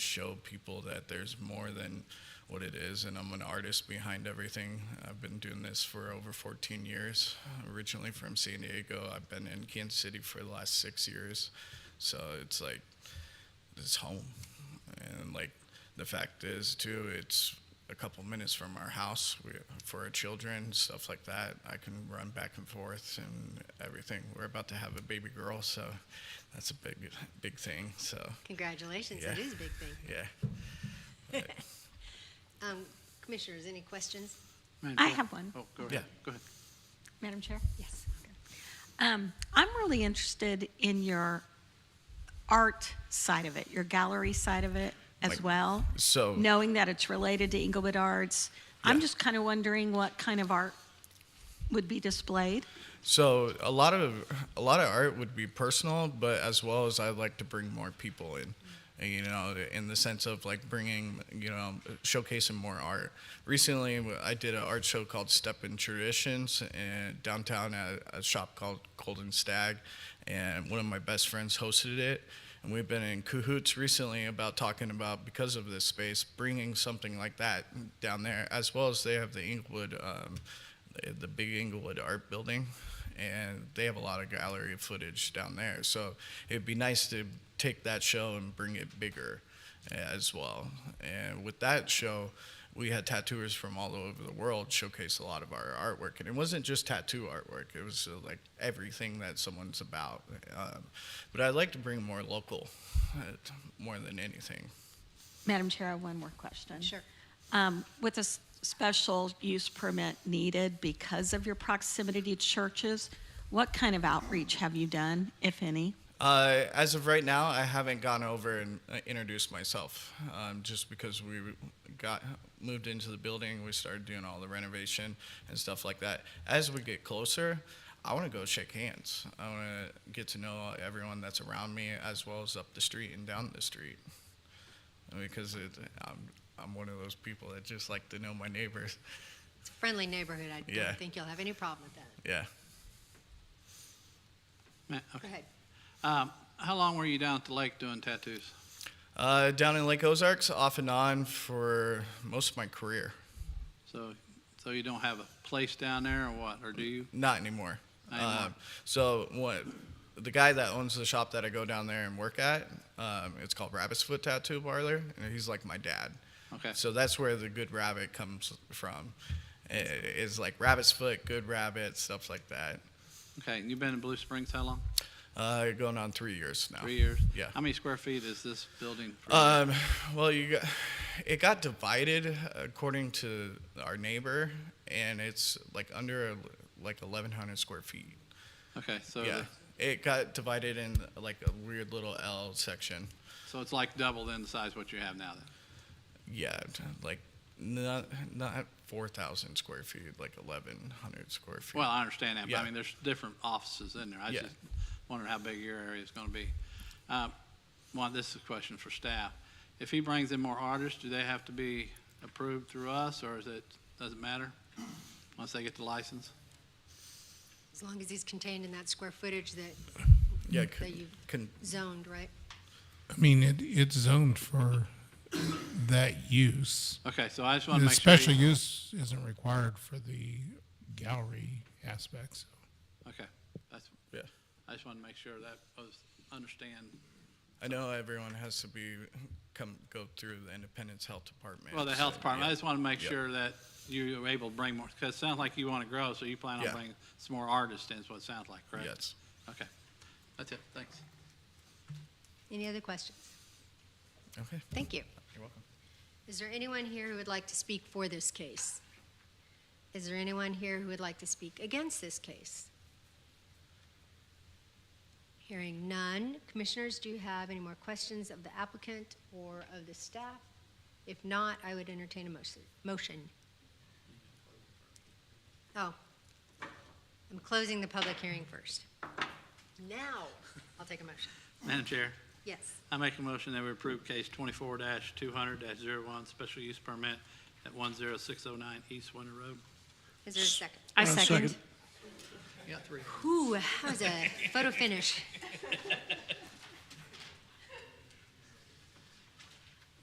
show people that there's more than what it is. And I'm an artist behind everything. I've been doing this for over 14 years. Originally from San Diego, I've been in Kansas City for the last six years. So it's like, it's home. And like, the fact is, too, it's a couple minutes from our house we, for our children, stuff like that. I can run back and forth and everything. We're about to have a baby girl, so that's a big, big thing. So, Congratulations, it Yeah. is a big thing. yeah. Um, Commissioners, any questions? Madam I Chair? have one. Oh, go Yeah. ahead, go ahead. Madam Chair? Yes. Um, I'm really interested in your art side of it, your gallery side of it as Like- well. so- knowing that it's related to Inglewood Arts, I'm Yeah. just kind of wondering what kind of art would be displayed. So a lot of a lot of art would be personal, but as well as I'd like to bring more people in, you know, in the sense of like bringing, you know, showcasing more art. Recently, I did an art show called Step in Traditions in downtown at a shop called Golden Stag, and one of my best friends hosted it. And we've been in cahoots recently about talking about because of this space, bringing something like that down there, as well as they have the Inglewood. Um, the big Inglewood Art Building, and they have a lot of gallery footage down there. So it'd be nice to take that show and bring it bigger as well. And with that show, we had tattooers from all over the world showcase a lot of our artwork, and it wasn't just tattoo artwork. It was uh, like everything that someone's about. Um, but I'd like to bring more local, uh, more than anything. Madam Chair, I have one more question. Sure. Um, With a s- special use permit needed because of your proximity to churches, what kind of outreach have you done, if any? Uh, as of right now, I haven't gone over and uh, introduced myself, um, just because we got moved into the building, we started doing all the renovation and stuff like that. As we get closer, I want to go shake hands. I want to get to know everyone that's around me, as well as up the street and down the street, because it, I'm I'm one of those people that just like to know my neighbors. It's a friendly neighborhood. I Yeah. don't think you'll have any problem with that. Yeah. Ma- Go okay. ahead. Um, How long were you down at the lake doing tattoos? Uh, down in Lake Ozarks, off and on for most of my career. So, so you don't have a place down there or what, or do you? Not anymore. Not anymore. Um, so what? The guy that owns the shop that I go down there and work at, um, it's called Rabbit's Foot Tattoo Parlor, and he's like my dad. Okay. So that's where the good rabbit comes from. I- Is like rabbit's foot, good rabbit, stuff like that. Okay, and you've been in Blue Springs how long? Uh, going on three years now. Three years? Oh, Yeah. How many square feet is this building? for you? Um, well, you got, it got divided according to our neighbor, and it's like under like 1,100 square feet. Okay, so, yeah. the- It got divided in like a weird little L section. so it's like double then the size what you have now then? Yeah, t- like not not 4,000 square feet, like 1,100 square feet. Well, I understand that, but Yeah. I mean, there's different offices in there. I Yeah. just wondered how big your area is gonna be. Um, Well, this is a question for staff. If he brings in more artists, do they have to be approved through us, or is it, does it matter? Once they get the license? As long as he's contained in that square footage that yeah, that c- you- can, zoned, right? I mean, it, it's zoned for that use. Okay, so I just wanna The make sure. you- special use isn't required for the gallery aspects. Okay, that's, yeah. I just wanna make sure that was, understand. I know everyone has to be come go through the Independence Health Department. Well, the health so, department, I yeah. just wanna make Yeah. sure that you are able to bring more, because it sounds like you wanna grow, so you plan on Yeah. bringing some more artists in, is what it sounds like, correct? Yes. Okay, that's it, thanks. Any other questions? Okay. Thank you. You're welcome. Is there anyone here who would like to speak for this case? Is there anyone here who would like to speak against this case? Hearing none, commissioners, do you have any more questions of the applicant or of the staff? If not, I would entertain a motion. Motion. Oh, I'm closing the public hearing first. Now, I'll take a motion. Madam Chair, Yes. I make a motion that we approve case twenty-four two hundred one special use permit at one zero six oh nine East Winter Road. Is there a second? I second. You got three. Ooh, that was a photo finish.